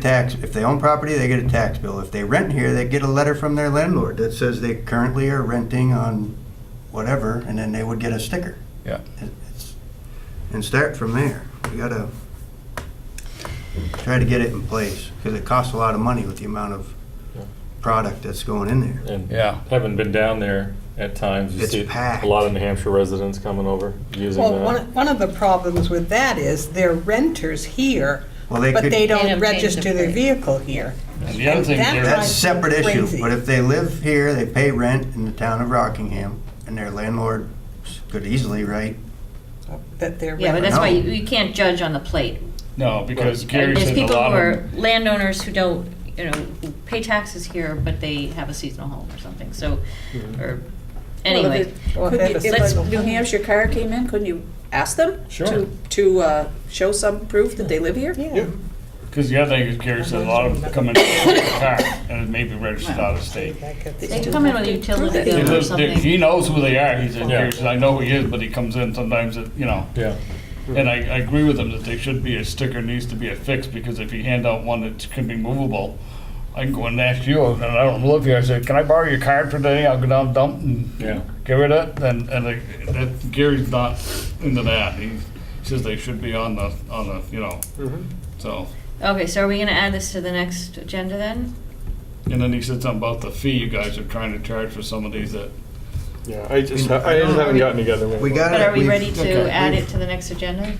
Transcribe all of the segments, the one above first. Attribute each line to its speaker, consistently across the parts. Speaker 1: tax, if they own property, they get a tax bill. If they rent here, they get a letter from their landlord that says they currently are renting on whatever, and then they would get a sticker.
Speaker 2: Yeah.
Speaker 1: It- it's- And start from there. We gotta try to get it in place, because it costs a lot of money with the amount of product that's going in there.
Speaker 3: And
Speaker 2: Yeah.
Speaker 3: having been down there at times, you
Speaker 1: It's
Speaker 3: see
Speaker 1: packed.
Speaker 3: a lot of New Hampshire residents coming over using
Speaker 4: Well, one,
Speaker 3: that.
Speaker 4: one of the problems with that is they're renters here,
Speaker 1: Well, they
Speaker 4: but
Speaker 1: could, that's
Speaker 4: they
Speaker 5: They
Speaker 4: don't
Speaker 5: don't change the
Speaker 4: register their
Speaker 5: plate.
Speaker 4: vehicle here.
Speaker 6: And the other
Speaker 4: And
Speaker 6: thing,
Speaker 4: that
Speaker 6: there-
Speaker 1: a
Speaker 4: drives-
Speaker 1: separate issue,
Speaker 4: Crazy.
Speaker 1: but if they live here, they pay rent in the town of Rockingham, and their landlord could easily write,
Speaker 4: That they're
Speaker 5: Yeah,
Speaker 4: renters.
Speaker 5: but that's why
Speaker 1: No.
Speaker 5: you, you can't judge on the plate.
Speaker 6: no, because Gary
Speaker 5: There's
Speaker 6: said a
Speaker 5: people who
Speaker 6: lot
Speaker 5: are
Speaker 6: of,
Speaker 5: landowners who don't, you know, who pay taxes here, but they have a seasonal home or something, so,
Speaker 6: Mm-hmm.
Speaker 5: or, anyway.
Speaker 4: Well,
Speaker 7: Could
Speaker 4: they have
Speaker 7: you-
Speaker 4: a
Speaker 7: If
Speaker 4: single
Speaker 7: a New
Speaker 4: home.
Speaker 7: Hampshire car came in, couldn't you ask them?
Speaker 3: Sure.
Speaker 7: To, to uh, show some proof that they live here?
Speaker 4: Yeah,
Speaker 6: because the other thing is Gary said a lot of them come in with a car and it may be registered out of state.
Speaker 4: that could be-
Speaker 5: They come in with a utility
Speaker 6: He
Speaker 5: bill or
Speaker 6: lives- He
Speaker 5: something.
Speaker 6: knows who they are, he said,
Speaker 3: Yeah.
Speaker 6: Gary said, I know who he is, but he comes in sometimes, that, you know.
Speaker 3: Yeah.
Speaker 6: And I, I agree with him that there should be a sticker, needs to be a fix, because if you hand out one that can be movable, I can go and ask you, and I don't live here, I say, can I borrow your card for today? I'll go down and dump and
Speaker 3: Yeah.
Speaker 6: get rid of it, and, and like, that, Gary's not into that. He says they should be on the, on the, you know,
Speaker 1: Mm-hmm.
Speaker 6: so.
Speaker 5: Okay, so are we gonna add this to the next agenda then?
Speaker 6: And then he said something about the fee you guys are trying to charge for some of these that,
Speaker 8: Yeah, I just, I just haven't gotten together. with
Speaker 1: we
Speaker 8: it.
Speaker 1: got
Speaker 5: But are we
Speaker 1: we've-
Speaker 5: ready
Speaker 6: Uh, okay,
Speaker 5: to add
Speaker 6: we've-
Speaker 5: it to the next agenda?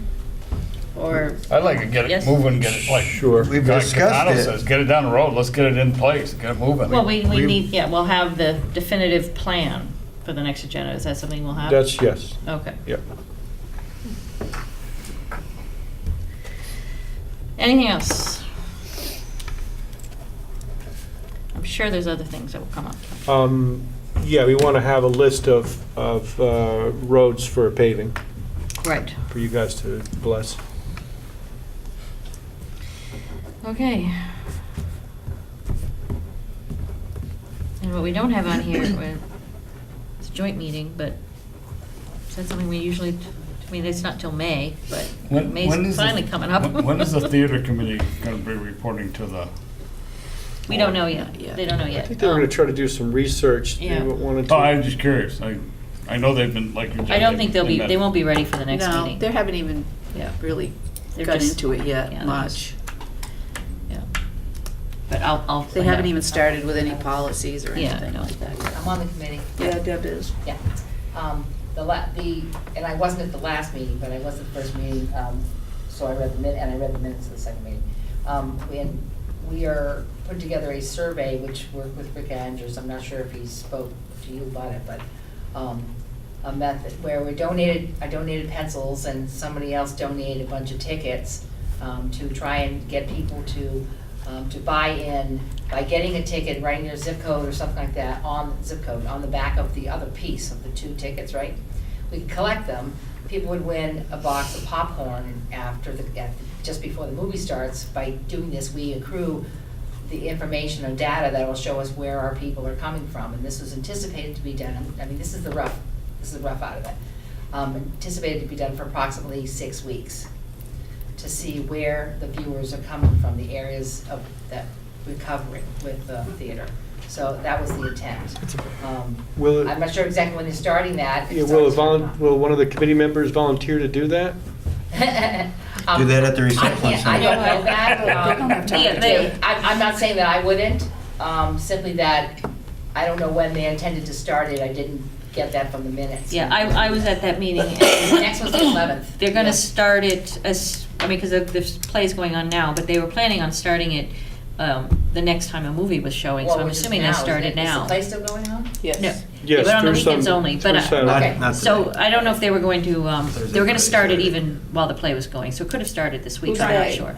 Speaker 5: Or,
Speaker 6: I'd like to get it
Speaker 5: Yes.
Speaker 6: moving, get it like.
Speaker 8: Sure.
Speaker 1: We've
Speaker 6: like
Speaker 1: discussed
Speaker 6: Catano
Speaker 1: it.
Speaker 6: says, Get it down the road, let's get it in place, get it moving.
Speaker 5: well, we, we
Speaker 1: we-
Speaker 5: need, yeah, we'll have the definitive plan for the next agenda. Is that something we'll have?
Speaker 8: That's, yes,
Speaker 5: Okay.
Speaker 8: yeah.
Speaker 5: Anything else? I'm sure there's other things that will come up.
Speaker 8: Um, yeah, we want to have a list of, of uh, roads for paving
Speaker 5: Right.
Speaker 8: for you guys to bless.
Speaker 5: Okay. And what we don't have on here, we're- it's a joint meeting, but is that something we usually, I mean, it's not till May, but
Speaker 6: When- when
Speaker 5: May's
Speaker 6: is the-
Speaker 5: finally coming up.
Speaker 6: when- When is the theater committee gonna be reporting to the?
Speaker 5: We don't know yet. They don't know yet.
Speaker 8: I think they were
Speaker 5: Um,
Speaker 8: going to try to do some research. They
Speaker 5: yeah.
Speaker 8: wanted
Speaker 6: Oh, I'm
Speaker 8: to,
Speaker 6: just curious, I, I know they've been like.
Speaker 5: I don't think they'll be, they won't be ready for the next
Speaker 7: No,
Speaker 5: meeting.
Speaker 7: they haven't even
Speaker 5: Yeah.
Speaker 7: really
Speaker 5: They're
Speaker 7: got
Speaker 5: just-
Speaker 7: into it
Speaker 5: yeah,
Speaker 7: yet much.
Speaker 5: Yeah. But I'll, I'll.
Speaker 7: They
Speaker 5: find
Speaker 7: haven't
Speaker 5: out.
Speaker 7: even started with any policies or
Speaker 5: Yeah, I
Speaker 7: anything
Speaker 5: know.
Speaker 7: like that.
Speaker 9: I'm on the committee,
Speaker 7: Yeah, Deb is.
Speaker 9: yeah. Um, The, la- the, and I wasn't at the last meeting, but I was at the first meeting, um, so I read the min, and I read the minutes of the second meeting. Um, And we are putting together a survey, which worked with Rick Andrews, I'm not sure if he spoke to you about it, but um, a method where we donated, I donated pencils and somebody else donated a bunch of tickets um, to try and get people to, um, to buy in by getting a ticket, writing their zip code or something like that on, zip code, on the back of the other piece of the two tickets, right? We could collect them, people would win a box of popcorn after the, at- just before the movie starts. By doing this, we accrue the information or data that will show us where our people are coming from. And this was anticipated to be done, I mean, this is the rough, this is the rough out of it. Um, Anticipated to be done for approximately six weeks to see where the viewers are coming from, the areas of, that we're covering with the theater. So that was the intent. Um,
Speaker 8: will,
Speaker 9: I'm
Speaker 8: it-
Speaker 9: not sure exactly when they're starting that.
Speaker 8: yeah, will, a
Speaker 9: It's always-
Speaker 8: volun- will one of the committee members volunteer to do that?
Speaker 9: Um,
Speaker 1: Do that at the
Speaker 9: I
Speaker 1: recycling
Speaker 9: can't, I
Speaker 1: center.
Speaker 9: don't know that. um,
Speaker 7: Don't have time
Speaker 9: yeah,
Speaker 7: to
Speaker 9: they-
Speaker 7: do.
Speaker 9: I, I'm not saying that I wouldn't, um, simply that I don't know when they intended to start it. I didn't get that from the minutes.
Speaker 5: Yeah, I, I was at that meeting and
Speaker 9: Next was the 11th.
Speaker 5: They're gonna
Speaker 9: Yeah.
Speaker 5: start it as, I mean, because the play's going on now, but they were planning on starting it um, the next time a movie was showing, so
Speaker 9: Well,
Speaker 5: I'm
Speaker 9: which is
Speaker 5: assuming
Speaker 9: now,
Speaker 5: they
Speaker 9: isn't
Speaker 5: started
Speaker 9: Is
Speaker 5: now.
Speaker 9: the play still going on?
Speaker 5: No.
Speaker 7: Yes.
Speaker 8: Yes,
Speaker 5: but on the
Speaker 8: through some-
Speaker 5: weekends only, but uh,
Speaker 8: through
Speaker 5: I-
Speaker 8: some-
Speaker 1: Not-
Speaker 9: Okay.
Speaker 1: not
Speaker 5: So
Speaker 1: today.
Speaker 5: I don't know if they were going to, um,
Speaker 1: Thursday,
Speaker 5: they were gonna start it
Speaker 1: Friday.
Speaker 5: even while the play was going, so it could have started this week,
Speaker 7: Who's
Speaker 5: I'm not
Speaker 7: they?
Speaker 5: sure.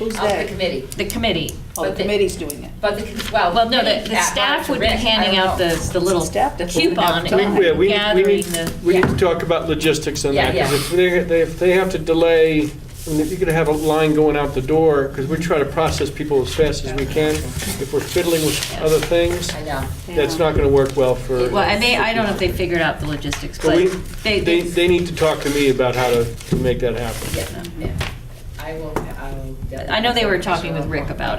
Speaker 7: Who's
Speaker 9: Of the committee.
Speaker 5: The committee,
Speaker 7: Oh, the
Speaker 9: But the-
Speaker 7: committee's doing it.
Speaker 9: But the, well.
Speaker 5: well, no, the,
Speaker 9: committee,
Speaker 5: the
Speaker 9: uh,
Speaker 5: staff would be
Speaker 9: Rick, I
Speaker 5: handing
Speaker 9: don't
Speaker 5: out
Speaker 9: know.
Speaker 5: the, the little
Speaker 7: Staff, that's what we
Speaker 5: coupon
Speaker 7: have to-
Speaker 5: and
Speaker 8: Yeah, we need- we
Speaker 5: gathering
Speaker 8: need,
Speaker 5: the.
Speaker 8: we need
Speaker 9: yeah.
Speaker 8: to talk about logistics on
Speaker 9: Yeah,
Speaker 8: that, because
Speaker 9: yeah.
Speaker 8: if they, they- if they have to delay, I mean, if you're gonna have a line going out the door, because we try to process people as fast as we can, if we're fiddling with other things,
Speaker 9: I know.
Speaker 8: that's not gonna work well for.
Speaker 5: Well, and they, I don't know if they figured out the logistics,
Speaker 8: But
Speaker 5: but
Speaker 8: we,
Speaker 5: they,
Speaker 8: they, they need to talk to me about how to, to make that happen.
Speaker 9: Yeah, yeah. I will, I will.
Speaker 5: I know they were talking with Rick about it.